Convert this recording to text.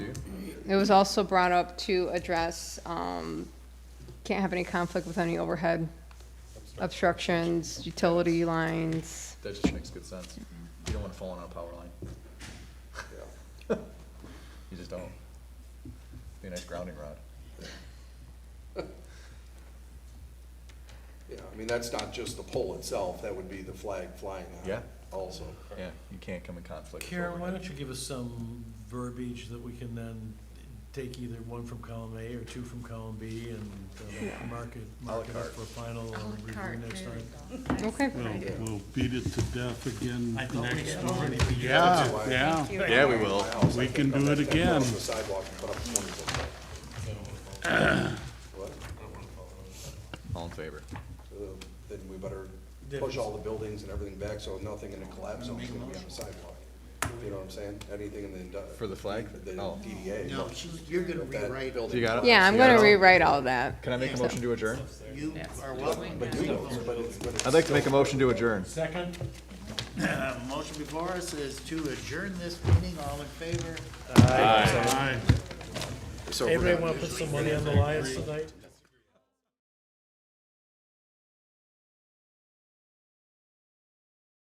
It was also brought up to address, um, can't have any conflict with any overhead obstructions, utility lines. That just makes good sense. You don't wanna fall on a power line. You just don't. Be a nice grounding rod. Yeah, I mean, that's not just the pole itself, that would be the flag flying out Yeah. also. Yeah, you can't come in conflict. with Karen, why overhead. don't you give us some verbiage that we can then take either one from column A or two from column B and uh, mark it, mark it up carte. for final review next time? Okay, We'll, we'll beat it to death again I thought we next had month. already beat it. Yeah, yeah. Yeah, we will. We can do it Go again. off the sidewalk and put up 20 foot pole. What? All in favor? So Uh, Then we better Yeah. push all the buildings and everything back, so nothing in a collapse zone is gonna be on the sidewalk. You know what I'm saying? Anything in the. indu- For the flag? The Oh. DDA. No, she's, you're gonna that rewrite, building- You got it? yeah, I'm You got it gonna all? rewrite all that. Can I make a motion to adjourn? you are welcome. But you know, but it's- but it's I'd like to make a still- motion to adjourn. Second? Uh, Motion before us is to adjourn this meeting, all in favor? Aye. So we're gonna- Anybody wanna put some money on the Lions tonight?